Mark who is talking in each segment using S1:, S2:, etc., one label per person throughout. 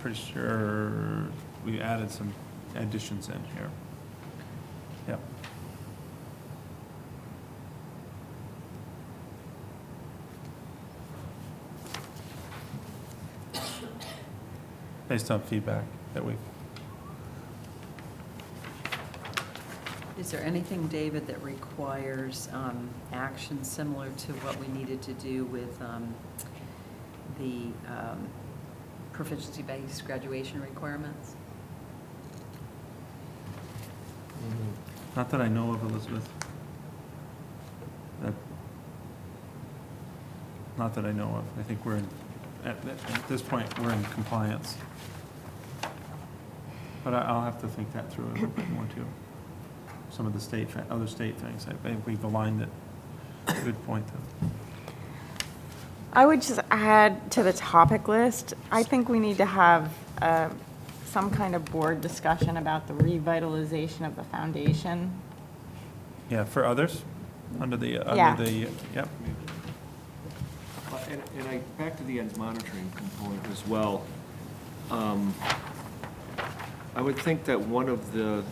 S1: pretty sure we added some additions in here. Yep. Based on feedback that we've
S2: Is there anything, David, that requires um, action similar to what we needed to do with um, the um, proficiency-based graduation requirements?
S3: Mm-hmm.
S1: Not that I know of, Elizabeth. That- Not that I know of. I think we're, in- at, th- at this point, we're in compliance. But I, I'll have to think that through a little bit more too. Some of the state, fa- other state things, I think we've aligned it. Good point though.
S4: I would just add to the topic list, I think we need to have uh, some kind of board discussion about the revitalization of the foundation.
S1: Yeah, for others, under the, uh,
S4: Yeah.
S1: under the, yep,
S3: Well, Uh, And and I, back to the monitoring component as well. Um, I would think that one of the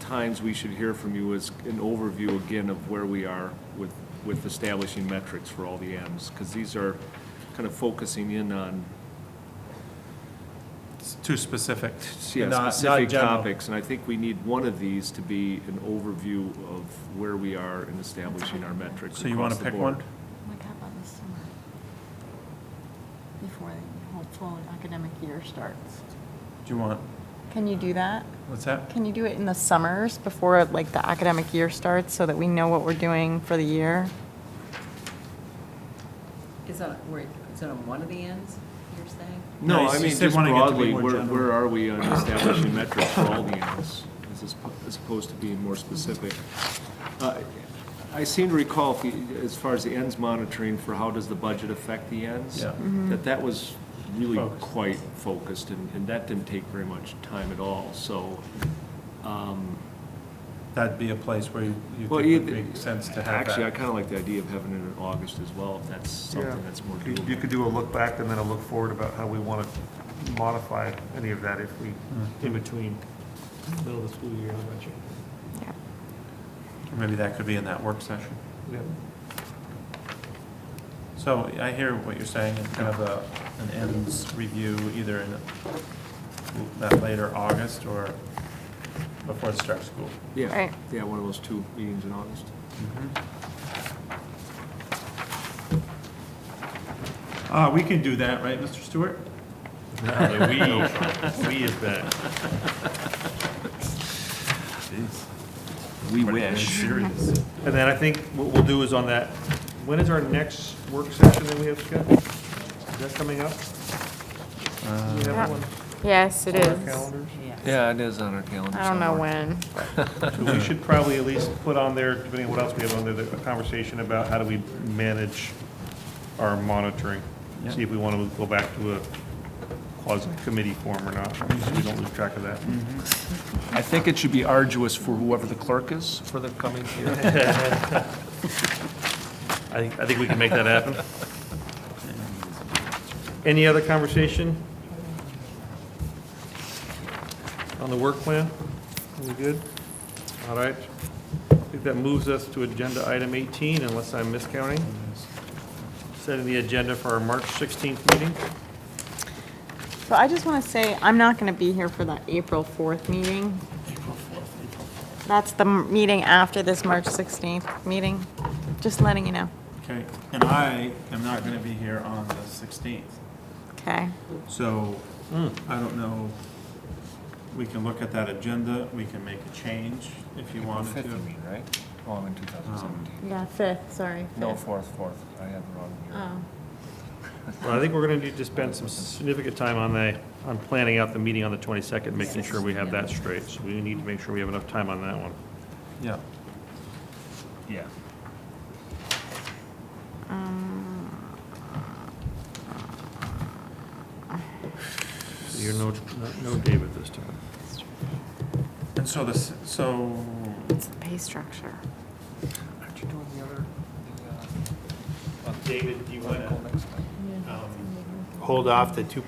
S3: times we should hear from you is an overview again of where we are with, with establishing metrics for all the Ms. Because these are kind of focusing in on,
S1: it's too specific.
S3: yeah,
S1: not- not
S3: specific
S1: general.
S3: topics. And I think we need one of these to be an overview of where we are in establishing our metrics
S1: So you want
S3: across
S1: to
S3: the
S1: pick
S3: board.
S1: one?
S4: Like how Oh about this summer? Before the whole full academic year starts.
S1: Do you want,
S4: Can you do that?
S1: what's that?
S4: Can you do it in the summers before like the academic year starts so that we know what we're doing for the year?
S2: Is that, where- is that on one of the ends, you're saying?
S1: No,
S3: No,
S1: it's
S3: I mean,
S1: just they
S3: just
S1: wanna get to be
S3: broadly,
S1: more
S3: where,
S1: general.
S3: where are we on establishing metrics for all the animals, as is- as opposed to being more specific? Uh, I seem to recall, if you- as far as the ends monitoring for how does the budget affect the ends?
S1: Yeah.
S3: That that was really
S1: Focused.
S3: quite focused, and, and that didn't take very much time at all, so, um,
S1: That'd be a place where you you think
S3: well,
S1: would
S3: either-
S1: make sense to have
S3: actually, I
S1: that.
S3: kind of like the idea of having it in August as well, if that's
S5: Yeah.
S3: something that's more
S5: You-
S3: doable.
S5: You could do a look back and then a look forward about how we want to modify any of that if we,
S3: Mm-hmm.
S5: in between middle of the school year, elementary.
S4: Yeah.
S1: Or Maybe that could be in that work session.
S5: Yeah.
S1: So I hear what you're saying, and kind of a, an ends review either in that later August or before the start of school.
S3: Yeah,
S4: Right.
S3: yeah, one of those two meetings in August.
S1: Uh, we can do that, right, Mr. Stewart?
S6: We is bad.
S3: We wish.
S5: And then I think what we'll do is on that, when is our next work session that we have scheduled? Is that coming up? Do we have
S4: Yeah.
S5: one
S4: Yes, it
S5: on our calendars?
S3: Yeah, it is on our calendar.
S4: I don't know
S3: somewhere.
S4: when.
S5: So we should probably at least put on there, depending on what else we have on there, the- a conversation about how do we manage our monitoring?
S1: Yeah.
S5: See if we want to go back to a quasi-committee form or not, so we don't lose track of that.
S3: I think it should be arduous for whoever the clerk is for the coming year.
S5: I think, I think we can make that happen. Any other conversation? On the work plan? We good? All right. I think that moves us to agenda item 18, unless I'm miscounting. Setting the agenda for our March 16th meeting.
S4: So I just want to say, I'm not going to be here for the April 4th meeting. That's the m- meeting after this March 16th meeting, just letting you know.
S1: Okay, and I am not gonna be here on the sixteenth,
S4: Okay,
S1: so
S7: Hmm.
S1: I don't know. We can look at that agenda, we can make a change if you wanted to.
S7: Fifth, you mean, right? Oh, I'm in 2017.
S4: yeah, 5th, sorry. Oh.
S7: No, fourth, fourth. I have the wrong year.
S4: Ah.
S5: Well, I think we're going to need to spend some significant time on the, on planning out the meeting on the 22nd, making sure we have that straight. So we need to make sure we have enough time on that one.
S1: Yeah.
S7: Yeah.
S4: Um,
S5: So You're no, no David this time.
S1: And so this, so,
S4: It's the pay structure.
S7: Aren't you doing the other, the, uh,
S6: David, do you um, want
S7: article
S6: to
S7: next time?
S6: hold off the 2.5